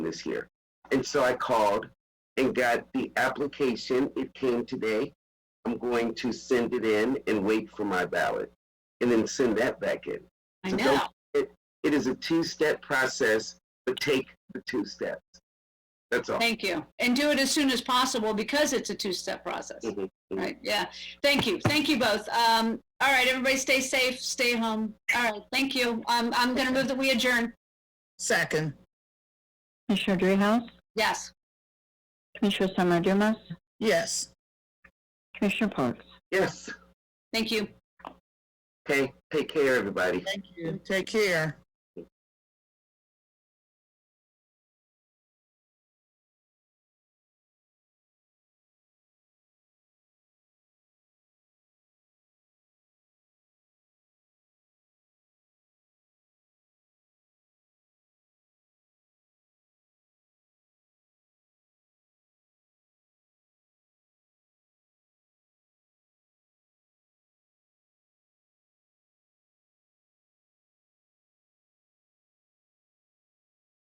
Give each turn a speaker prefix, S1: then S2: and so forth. S1: this year. And so I called and got the application. It came today. I'm going to send it in and wait for my ballot and then send that back in.
S2: I
S1: So
S2: know.
S1: It is a two step process, but take the two steps. That's all.
S2: Thank you. And do it as soon as possible because it's a two-step process.
S1: Mhm, mhm.
S2: Right, yeah. Thank you. Thank you both. Um, all right, everybody stay safe, stay home. All right, thank you. Um, I'm gonna move that we adjourn.
S3: Second.
S4: Commissioner Dreehouse?
S2: Yes.
S4: Commissioner Summer Dumas?
S3: Yes.
S4: Commissioner Parks?
S1: Yes.
S2: Thank you.
S1: Okay. Take care, everybody.
S3: Thank you. Take care.